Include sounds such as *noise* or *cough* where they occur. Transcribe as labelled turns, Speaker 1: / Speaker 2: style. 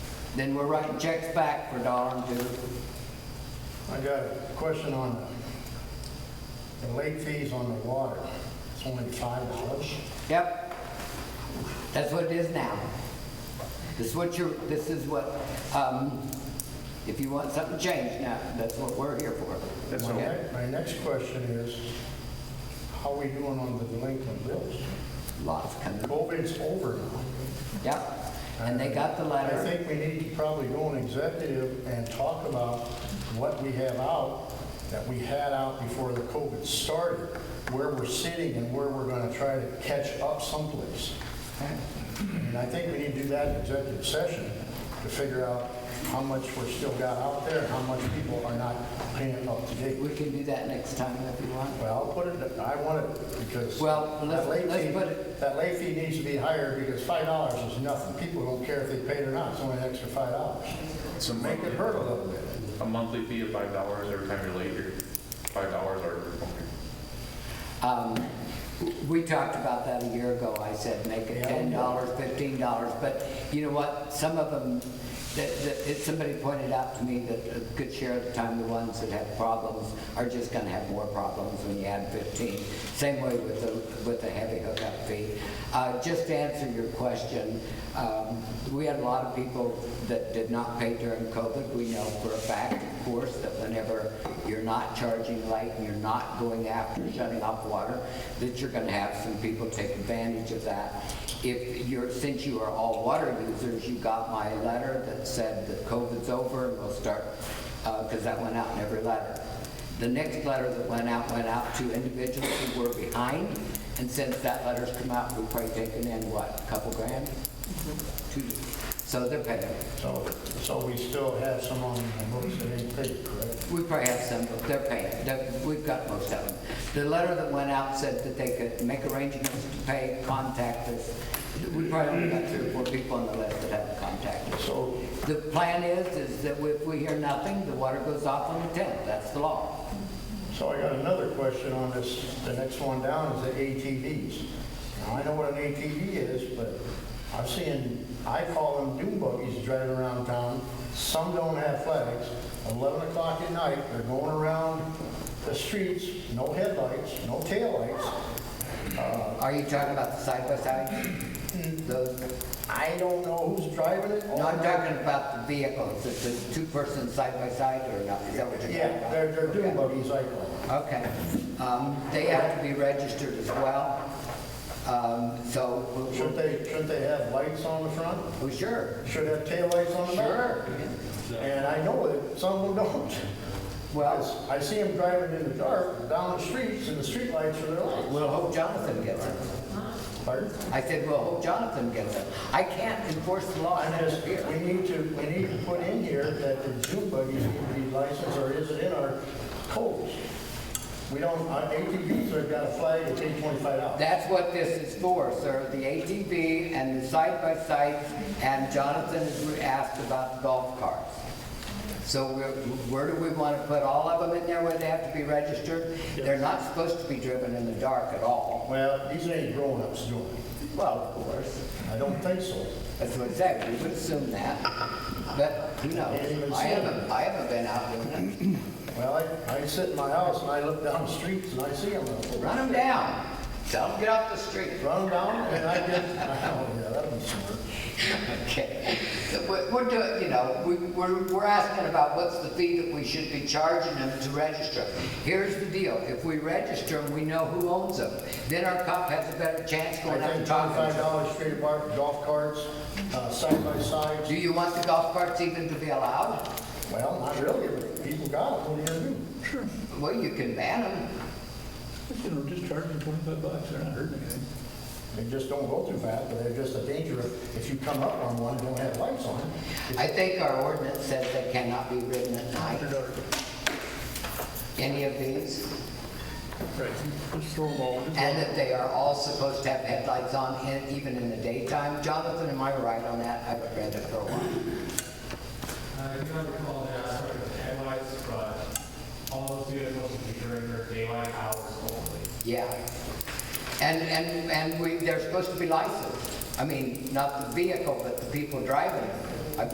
Speaker 1: Then we're writing checks back for a dollar and two.
Speaker 2: I got a question on the- the late fees on the water. It's only five dollars.
Speaker 1: Yep. That's what it is now. This is what you're, this is what, um, if you want something changed now, that's what we're here for.
Speaker 3: That's
Speaker 2: My
Speaker 3: all.
Speaker 1: Okay?
Speaker 2: ne- My next question is, how are we doing on the delinquent bills?
Speaker 1: Lots coming.
Speaker 2: COVID's over now.
Speaker 1: Yep. And they got the
Speaker 2: I
Speaker 1: letter.
Speaker 2: think we need to probably go in executive and talk about what we have out, that we had out before the COVID started, where we're sitting and where we're gonna try to catch up someplace. And I think we need to do that in executive session to figure out how much we're still got out there, how much people are not paying up to date.
Speaker 1: We can do that next time if you want.
Speaker 2: Well, I'll put it, I want it because.
Speaker 1: Well, let's-
Speaker 2: that late
Speaker 1: let's
Speaker 2: fee-
Speaker 1: put it-
Speaker 2: That late fee needs to be higher because five dollars is nothing. People don't care if they paid or not, it's only an extra five dollars.
Speaker 3: It's a
Speaker 2: Make it
Speaker 3: monthly-
Speaker 2: hurt a little bit.
Speaker 3: A monthly fee of five dollars every time you're late, or five dollars or
Speaker 1: Um, We talked about that a year ago. I said, make it
Speaker 2: Yeah.
Speaker 1: ten dollars, fifteen dollars, but you know what? Some of them, that, that, it- somebody pointed out to me that a good share of the time, the ones that have problems are just gonna have more problems when you add fifteen. Same way with the, with the heavy hookup fee. Uh, just to answer your question, um, we had a lot of people that did not pay during COVID. We know for a fact, of course, that whenever you're not charging late and you're not going after shutting off water, that you're gonna have some people take advantage of that. If you're, since you are all water users, you got my letter that said that COVID's over and we'll start, uh 'cause cause that went out in every letter. The next letter that went out, went out to individuals who were behind, and since that letter's come out, we've probably taken in, what, a couple grand? Two, so they're paying.
Speaker 2: So, so we still have some on the books that ain't paid, correct?
Speaker 1: We probably have some, but they're paying, They're- we've got most of them. The letter that went out said that they could make arrangements to pay, contact us. We probably only got three or four people on the list that haven't contacted us.
Speaker 2: So,
Speaker 1: The plan is, is that if we hear nothing, the water goes off on the tenth, that's the law.
Speaker 2: so I got another question on this. The next one down is the ATVs. Now, I know what an ATV is, but I've seen, I call them dune buggies driving around town. Some don't have flags. Eleven o'clock at night, they're going around the streets, no headlights, no taillights.
Speaker 1: Are you talking about the side-by-side?
Speaker 2: Mm-hmm.
Speaker 1: Those-
Speaker 2: I don't know who's driving it.
Speaker 1: No, I'm talking about the vehicles, if there's two persons side-by-side or not, is that what you're talking
Speaker 2: Yeah,
Speaker 1: about?
Speaker 2: they're, they're dune
Speaker 1: Okay.
Speaker 2: buggies, I call them.
Speaker 1: Okay, um, they have to be registered as well, um, so. we-
Speaker 2: Shouldn't they, shouldn't they have lights on the front?
Speaker 1: Oh, sure,
Speaker 2: Should have taillights on the back.
Speaker 1: sure.
Speaker 2: And I know that some of them don't. *laughs*
Speaker 1: Well,
Speaker 2: I see them driving in the dark down the streets and the streetlights are their lights.
Speaker 1: we'll hope Jonathan gets it.
Speaker 2: Pardon?
Speaker 1: I said, we'll hope Jonathan gets it. I can't enforce the law
Speaker 2: I'm
Speaker 1: in this
Speaker 2: just,
Speaker 1: here.
Speaker 2: we need to, we need to put in here that the dune buggies need to be licensed or is it in our codes? We don't, our ATVs have got a flag that's eight twenty-five dollars.
Speaker 1: That's what this is for, sir, the ATV and the side-by-side, and Jonathan has asked about the golf carts. So where- where do we want to put all of them in there where they have to be registered? They're not supposed to be driven in the dark at all.
Speaker 2: Well, these ain't grown-ups doing it.
Speaker 1: Well, of course,
Speaker 2: I don't think so.
Speaker 1: that's what I said, we would assume that, but who knows? I haven't, I haven't been out doing
Speaker 2: Well, I, I sit in my house and I look down the streets and I see them.
Speaker 1: it. Run them down, tell them get off the street. *laughs*
Speaker 2: Run down and I get, *laughs* oh, yeah, that'd be smart.
Speaker 1: Okay, We're- we're doing, you know, we- we're, we're asking about what's the fee that we should be charging them to register. Here's the deal, if we register them, we know who owns them, then our cop has a better chance
Speaker 2: I
Speaker 1: going out
Speaker 2: think
Speaker 1: and talking
Speaker 2: twenty-five
Speaker 1: to them.
Speaker 2: dollars street apart, golf carts, uh, side by
Speaker 1: Do
Speaker 2: sides.
Speaker 1: you want the golf carts even to be allowed?
Speaker 2: Well, not really, but people got them, what are you gonna do?
Speaker 4: Sure,
Speaker 1: Well, you can ban them,
Speaker 4: you know, just charge them twenty-five bucks, they're not hurting anything.
Speaker 2: They just don't go too fast, but they're just a danger if if you come up on one and don't have lights on.
Speaker 1: I think our ordinance says they cannot be ridden at night,
Speaker 4: They're not-
Speaker 1: any of these,
Speaker 4: Right, just throw them all. just-
Speaker 1: and that they are all supposed to have headlights on, in- even in the daytime. Jonathan, am I right on that? I haven't read it for a while.
Speaker 5: I do not recall uh, the aspect of headlights, but all those vehicles will be during their daylight hours only.
Speaker 1: Yeah. And, and, and we, they're supposed to be licensed. I mean, not the vehicle, but the people driving it.